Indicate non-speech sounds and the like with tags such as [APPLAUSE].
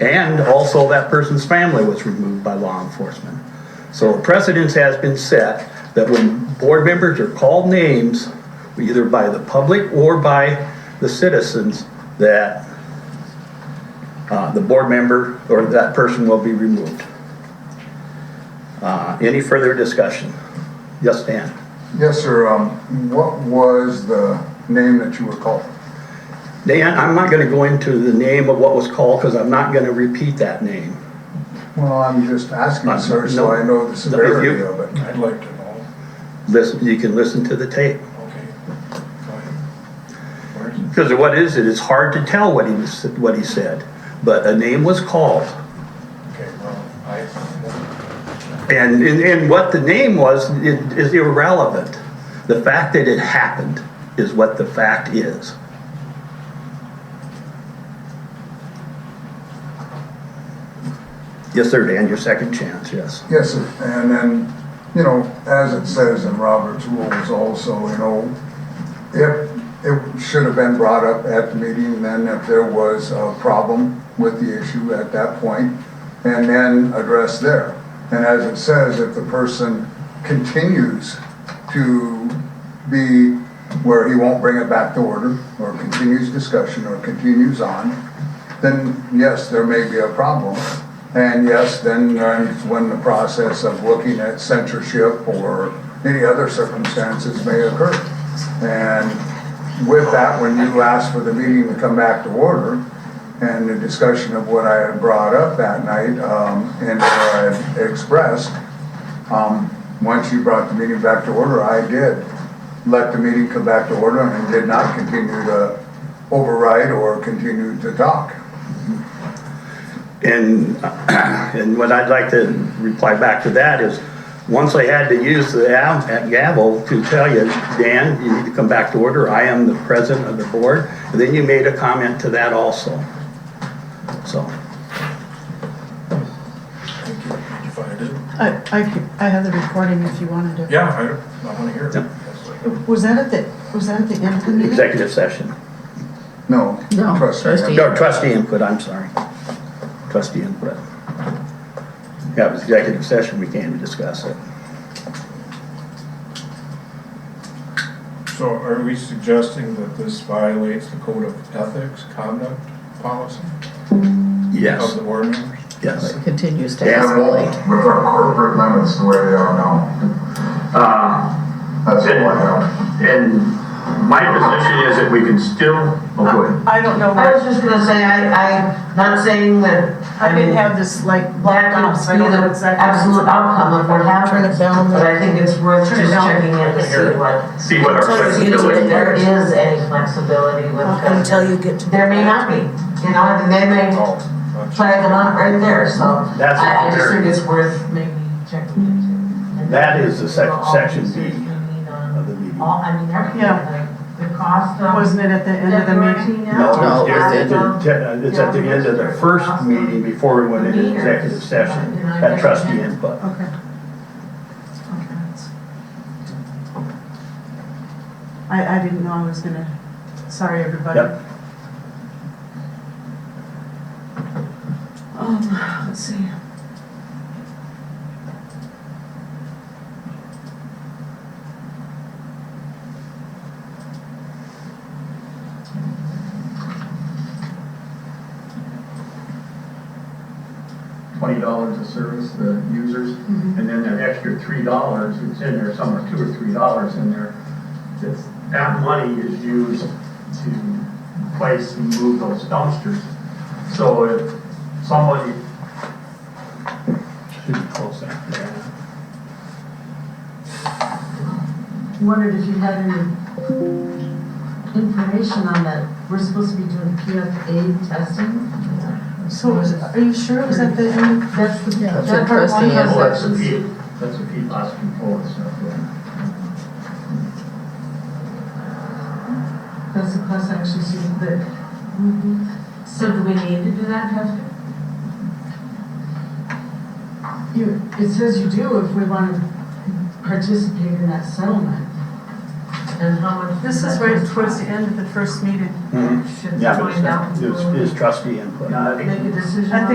And also that person's family was removed by law enforcement. So a precedence has been set that when board members are called names, either by the public or by the citizens, that uh, the board member or that person will be removed. Uh, Any further discussion? Yes, Dan? Yes, sir. Um, what was the name that you were called? Dan, I'm not going to go into the name of what was called because I'm not going to repeat that name. Well, I'm just asking, sir, so I know the severity of it. I'd like to know. Listen, you can listen to the tape. Okay. Go ahead. Where's it? Because what is it? It's hard to tell what he was, what he said, but a name was called. Okay, well, I, And, and, and what the name was i- is irrelevant. The fact that it happened is what the fact is. Yes, sir, Dan, your second chance, yes. Yes, sir. And then, you know, as it says in Robert's rules also, you know, if it should have been brought up at the meeting, then if there was a problem with the issue at that point, and then addressed there. And as it says, if the person continues to be where he won't bring it back to order, or continues discussion, or continues on, then yes, there may be a problem. And yes, then uh, when the process of looking at censorship or any other circumstances may occur. And with that, when you asked for the meeting to come back to order and the discussion of what I had brought up that night um, and what I had expressed, um, once you brought the meeting back to order, I did let the meeting come back to order and did not continue to override or continue to talk. And, [CLEARS THROAT] and what I'd like to reply back to that is, once I had to use the av- gavel to tell you, Dan, you need to come back to order, I am the president of the board, and then you made a comment to that also. So, thank you, if I did. I, I, could- I have the recording if you wanted to. Yeah, I, I wanna hear it. Yep. Yes, I- Was that at the, was that at the end of Mm-hmm. the meeting? executive session. No. No, trustee. trustee. No, trustee input, I'm sorry. Trustee input. Yeah, it was executive session, we came to discuss it. So are we suggesting that this violates the code of ethics, conduct, policy of Yes, the board members? yes. Continues to Yeah. escalate. with our corporate limits the way they are now. Uh, That's all I have. And my position is that we can still, oh, go ahead. I don't know, I was what- just gonna say, I, I, not saying that. I didn't have this like black That out, could so I be don't know the exactly. absolute outcome of what happens, but I think it's worth Turn it just down. checking in to see what. see what our So see if flexibility there is. is any flexibility with, because Until you get to. there may not be, you know, and they may Oh, that's- flag it up right there, so. That's I, I just very- think it's worth maybe checking into. That is the sec- section B of the meeting. All, I mean, everything, Yeah. like the cost of. Wasn't it at the end of the meeting? No, it's at the- uh, no, It's at the end of the first meeting before we went into executive session, at trustee input. Okay. I, I didn't know I was gonna, sorry, everybody. Yep. Um, let's see. Twenty dollars to service the users, and then that extra three dollars, it's in there somewhere, two or three dollars in there. That's, that money is used to place and move those dumpsters. So if somebody Should be close there. wondered if you had any information on that. We're supposed to be doing PFA testing. So was, are you sure it was at the end? That's the, Yeah, that's that part interesting, one yeah. has Well, That's a sections. P, that's a P loss control and stuff, yeah. That's the class action suit that. Mm-hmm. So do we need to do that testing? You, it says you do if we want to participate in that settlement. And how much? This is right towards the end of the first meeting. Mhm. Mm-hmm. Should Yeah, find out. but it's, it's trustee input. Yeah, I think Make a decision I on